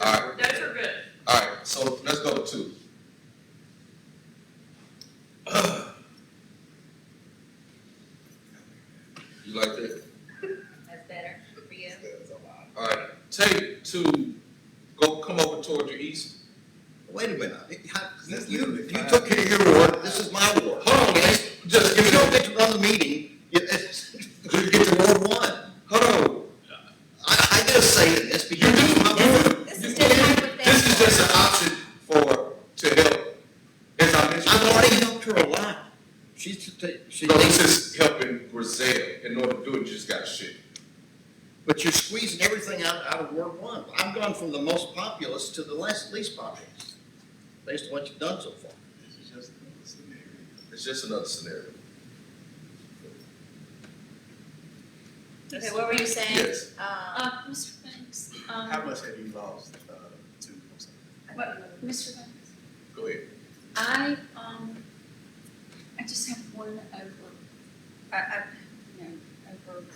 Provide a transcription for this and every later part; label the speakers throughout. Speaker 1: All right.
Speaker 2: Those are good.
Speaker 1: Alright, so let's go to. You like that?
Speaker 3: That's better for you.
Speaker 1: Alright, take to, go, come over toward your east.
Speaker 4: Wait a minute, It- how-
Speaker 5: That's
Speaker 4: you,
Speaker 5: literally
Speaker 4: you
Speaker 5: five.
Speaker 4: took care of your ward, this is my ward.
Speaker 1: Hold on, man. just give
Speaker 4: If you
Speaker 1: me
Speaker 4: don't
Speaker 1: a,
Speaker 4: get to another meeting, you, you get to Ward One.
Speaker 1: hold on.
Speaker 4: I, I just say it, it's
Speaker 1: You
Speaker 4: because
Speaker 1: do,
Speaker 4: it's my ward.
Speaker 1: you,
Speaker 3: This
Speaker 1: you,
Speaker 3: is just hypothetical.
Speaker 1: this is just an option for, to help. As I mentioned.
Speaker 4: I've already helped her a lot. She's, to ta- she
Speaker 1: No, this
Speaker 4: thinks,
Speaker 1: is helping Grizel, in order to do it, you just got shit.
Speaker 4: but you're squeezing everything out, out of Ward One. I've gone from the most populous to the less, least populous, based on what you've done so far.
Speaker 1: It's just another scenario.
Speaker 3: Okay, what were you saying?
Speaker 1: Yes,
Speaker 3: Um,
Speaker 2: Uh, Mr. Banks,
Speaker 5: How
Speaker 2: um,
Speaker 5: much have you lost, uh, to,
Speaker 2: what, Mr. Banks,
Speaker 1: go ahead.
Speaker 2: I, um, I just have one over, I, I, you know, over,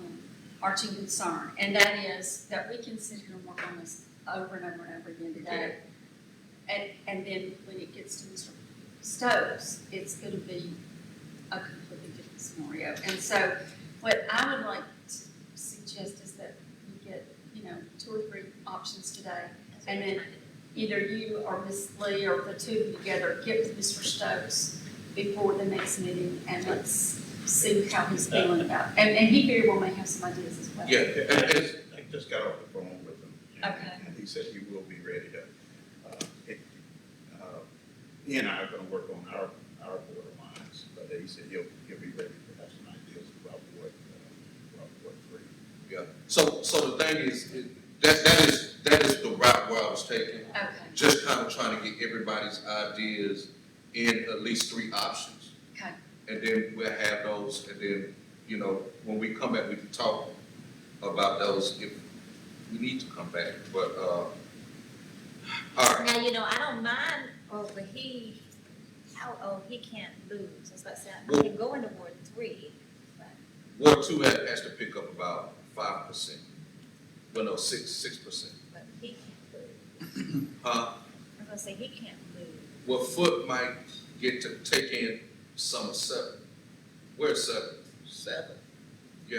Speaker 2: um, arching concern, and that is that we can sit here and work on this over and over and over again today. And, and then when it gets to Mr. Stokes, it's gonna be a completely different scenario. And so what I would like to suggest is that we get, you know, two or three options today. And then either you or Ms. Lee or the two of you together get to Mr. Stokes before the next meeting and let's see how he's feeling about. And, and he very well may have some ideas as well.
Speaker 1: Yeah, and, and
Speaker 5: I just got off the phone with him.
Speaker 2: Okay.
Speaker 5: And he said he will be ready to, uh, it, uh, he and I are gonna work on our, our border lines, but he said he'll, he'll be ready to have some ideas about what, uh, about what three.
Speaker 1: Yeah, so, so the thing is, it- that, that is, that is the route where I was taking,
Speaker 2: Okay,
Speaker 1: just kind of trying to get everybody's ideas in at least three options.
Speaker 2: Okay.
Speaker 1: And then we'll have those, and then, you know, when we come back, we can talk about those if we need to come back, but, uh, all right,
Speaker 3: now, you know, I don't mind, oh, but he, how, oh, he can't lose. That's what I said. I can go into Ward Three, but
Speaker 1: Ward Two has, has to pick up about five percent, well, no, six, six percent.
Speaker 3: but he can't lose.
Speaker 1: Huh,
Speaker 3: I'm gonna say he can't lose.
Speaker 1: well, Foot might get to take in some of seven. Where's seven?
Speaker 4: Seven.
Speaker 1: We'll,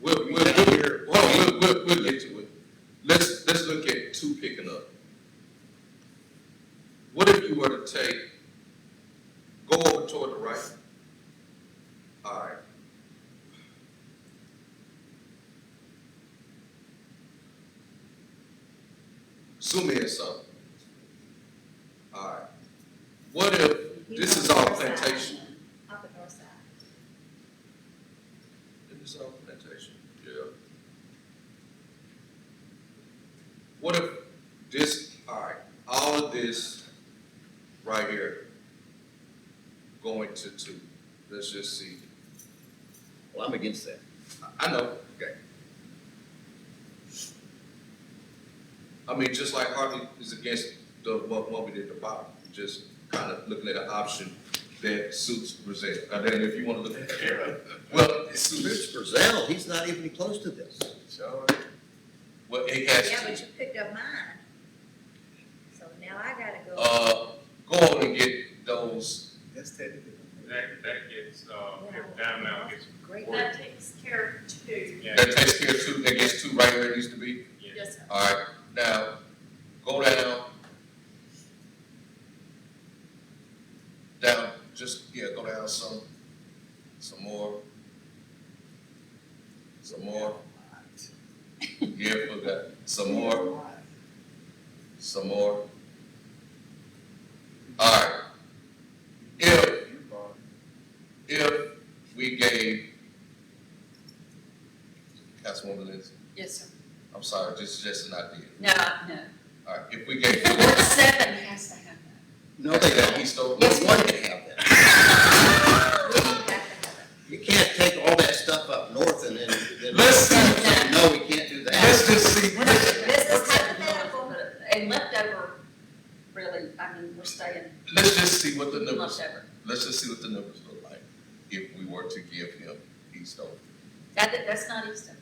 Speaker 1: we'll, we'll, hold on, we'll, we'll, we'll get to it. Let's, let's look at two picking up. What if you were to take, go over toward the right? Alright. Zoom in some. Alright. What if,
Speaker 3: He's
Speaker 1: this
Speaker 3: on
Speaker 1: is
Speaker 3: the
Speaker 1: all
Speaker 3: north side.
Speaker 1: plantation,
Speaker 3: On the north side.
Speaker 1: It's all plantation, yeah. What if this, alright, all of this right here going to two, let's just see,
Speaker 4: Well, I'm against that.
Speaker 1: I- I know, okay. I mean, just like Harvey is against the, what, what we did at the bottom, just kind of looking at an option that suits Brazil, and then if you wanna look at, well, it suits,
Speaker 4: Mr. Brazil, he's not even close to this.
Speaker 5: So,
Speaker 1: well, it has to.
Speaker 3: Yeah, but you picked up mine. So now I gotta go.
Speaker 1: uh, go on and get those,
Speaker 5: that's technically.
Speaker 6: That, that gets, uh, if Diamond gets,
Speaker 3: Great.
Speaker 6: Ward-
Speaker 2: that takes care of two.
Speaker 6: yeah,
Speaker 1: that takes care of two, that gets two right where it needs to be.
Speaker 6: yeah,
Speaker 2: Yes, sir.
Speaker 1: Alright, now, go down. Down, just, yeah, go down some, some more. Some more, yeah, put that, some more, some more. Alright, if if we gave Councilwoman Liz,
Speaker 2: Yes, sir.
Speaker 1: I'm sorry, this is just an idea.
Speaker 2: No, no.
Speaker 1: All right, if we gave
Speaker 2: Ward seven has to have
Speaker 4: No, they don't.
Speaker 1: He stole.
Speaker 2: Yes,
Speaker 4: One can have that.
Speaker 2: that. We have to have it.
Speaker 4: You can't take all that stuff up north and then, then.
Speaker 1: Let's do
Speaker 2: that.
Speaker 4: No, we can't do that.
Speaker 1: Let's just see.
Speaker 2: We're not doing that.
Speaker 3: This is
Speaker 2: We're taking it
Speaker 3: hypothetical.
Speaker 2: over, but- And leftover, really, I mean, we're staying
Speaker 1: Let's just see what the numbers,
Speaker 2: leftover.
Speaker 1: let's just see what the numbers look like if we were to give him East Oak.
Speaker 2: That, that- that's not Easton.